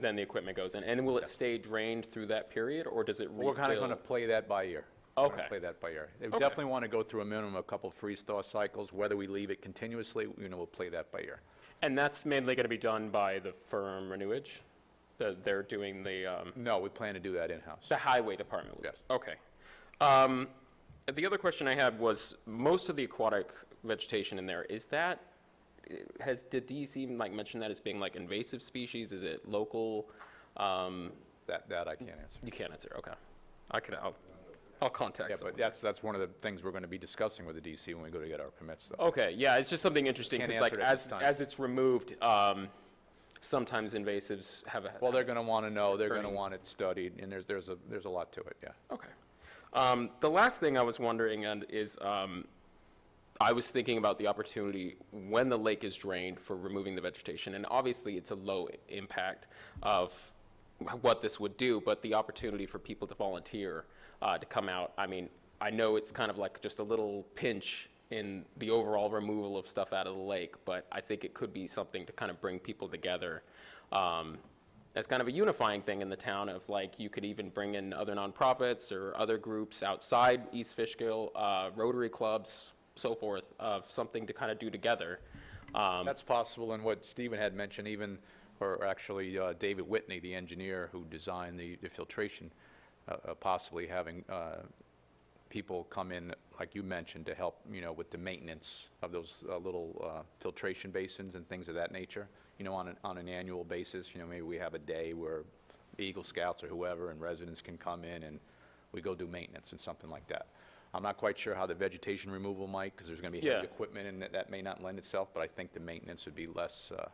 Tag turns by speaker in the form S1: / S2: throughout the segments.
S1: then the equipment goes in. And will it stay drained through that period, or does it refill?
S2: We're kind of going to play that by ear. We're gonna
S1: Okay.
S2: Play that by ear. They definitely want to go through a minimum of a couple freeze-thaw cycles. Whether we leave it continuously, you know, we'll play that by ear.
S1: And that's mainly going to be done by the firm Renewage? That they're doing the, um,
S2: No, we plan to do that in-house.
S1: the highway department? will do-
S2: Yes.
S1: Okay. Um, The other question I had was, most of the aquatic vegetation in there, is that, has, did DEC like mention that as being like invasive species? Is it local? Um,
S2: That, that I can't answer.
S1: You can't answer, okay. I could, I'll, I'll contact
S2: Yeah,
S1: someone.
S2: but that's, that's one of the things we're going to be discussing with the DC when we go to get our permits, though.
S1: Okay, yeah, it's just something interesting,
S2: Can't
S1: because like,
S2: answer it at
S1: as,
S2: this time.
S1: as it's removed, um, sometimes invasives have a.
S2: Well, they're going to want to know, they're going to
S1: Attorney.
S2: want it studied, and there's, there's a, there's a lot to it, yeah.
S1: Okay. Um, the last thing I was wondering and is, um, I was thinking about the opportunity when the lake is drained for removing the vegetation, and obviously it's a low i- impact of what this would do, but the opportunity for people to volunteer uh, to come out. I mean, I know it's kind of like just a little pinch in the overall removal of stuff out of the lake, but I think it could be something to kind of bring people together. Um, as kind of a unifying thing in the town of like you could even bring in other nonprofits or other groups outside East Fishkill, uh, Rotary clubs, so forth, of something to kind of do together. Um,
S2: That's possible, and what Stephen had mentioned even, or actually uh, David Whitney, the engineer who designed the the filtration, uh, uh, possibly having uh, people come in, like you mentioned, to help, you know, with the maintenance of those uh, little uh, filtration basins and things of that nature, you know, on an, on an annual basis, you know, maybe we have a day where Eagle Scouts or whoever and residents can come in and we go do maintenance and something like that. I'm not quite sure how the vegetation removal might, because there's going to be
S1: Yeah.
S2: heavy equipment and that, that may not lend itself, but I think the maintenance would be less, uh,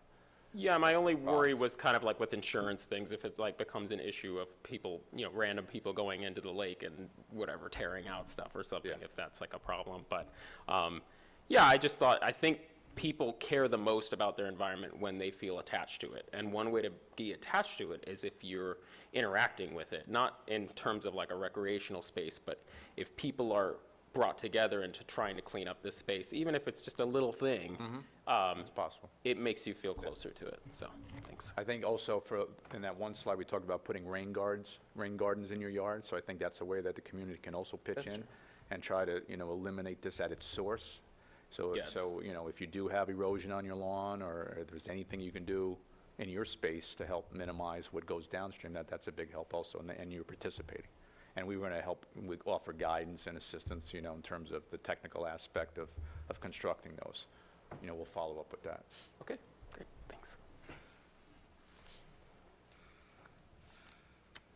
S1: yeah, my only worry was kind of like with insurance things, if it like becomes an issue of people, you know, random people going into the lake and whatever, tearing out stuff or something,
S2: Yeah.
S1: if that's like a problem. But um, yeah, I just thought, I think people care the most about their environment when they feel attached to it. And one way to be attached to it is if you're interacting with it, not in terms of like a recreational space, but if people are brought together into trying to clean up this space, even if it's just a little thing, um,
S2: it's possible.
S1: it makes you feel closer to it. So, thanks.
S2: I think also for, in that one slide, we talked about putting rain guards, rain gardens in your yard, so I think that's a way that the community can also pitch
S1: That's
S2: in
S1: true.
S2: and try to, you know, eliminate this at its source. So,
S1: Yes.
S2: so, you know, if you do have erosion on your lawn, or if there's anything you can do in your space to help minimize what goes downstream, that, that's a big help also, and, and you're participating. And we were gonna help, we offer guidance and assistance, you know, in terms of the technical aspect of, of constructing those. You know, we'll follow up with that.
S1: Okay, great, thanks.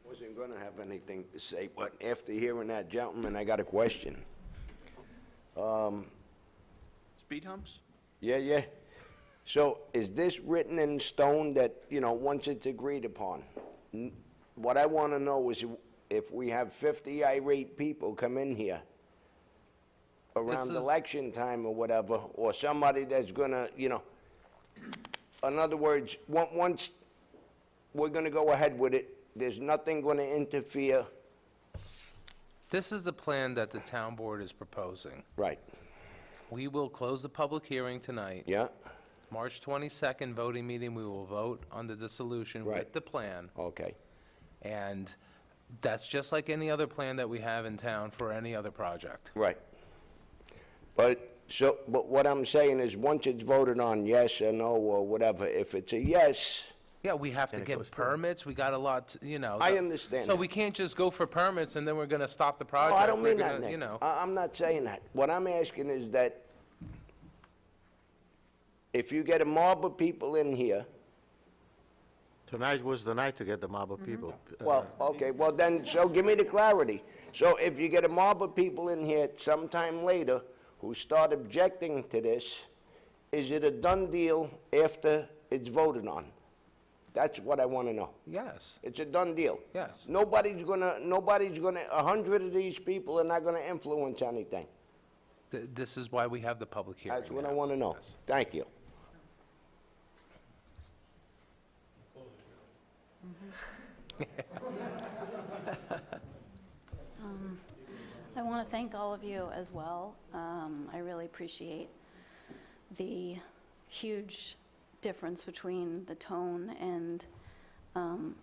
S3: Wasn't gonna have anything to say, but after hearing that gentleman, I got a question.
S4: Speed humps?
S3: Yeah, yeah. So is this written in stone that, you know, once it's agreed upon? N- What I wanna know is if we have fifty irate people come in here around
S4: is-
S3: election time or whatever, or somebody that's gonna, you know, in other words, on- once we're gonna go ahead with it, there's nothing gonna interfere.
S5: This is the plan that the town board is proposing.
S3: Right,
S5: We will close the public hearing tonight.
S3: yeah,
S5: March 22nd voting meeting, we will vote on the dissolution
S3: Right.
S5: with the plan.
S3: okay.
S5: And that's just like any other plan that we have in town for any other project.
S3: Right. But, so, but what I'm saying is, once it's voted on, yes or no, or whatever, if it's a yes,
S5: Yeah, we have to get permits, we got a lot, to- you know.
S3: I
S5: the-
S3: understand
S5: So
S3: that.
S5: we can't just go for permits and then we're going to stop the
S3: no,
S5: project.
S3: Oh, I don't
S5: We're
S3: mean that,
S5: gonna, You
S3: Nick. Uh,
S5: know,
S3: I, I'm not saying that. What I'm asking is that if you get a mob of people in here,
S6: Tonight was the night to get the mob of people. Uh,
S3: well, okay, well then, so give me the clarity. So if you get a mob of people in here sometime later who start objecting to this, is it a done deal after it's voted on? That's what I want to know.
S5: yes.
S3: It's a done deal.
S5: Yes.
S3: Nobody's gonna, nobody's gonna, a hundred of these people are not gonna influence anything.
S5: Th- This is why we have the public hearing.
S3: That's what I
S5: now.
S3: wanna know. Thank you.
S7: I want to thank all of you as well. Um, I really appreciate the huge difference between the tone and um,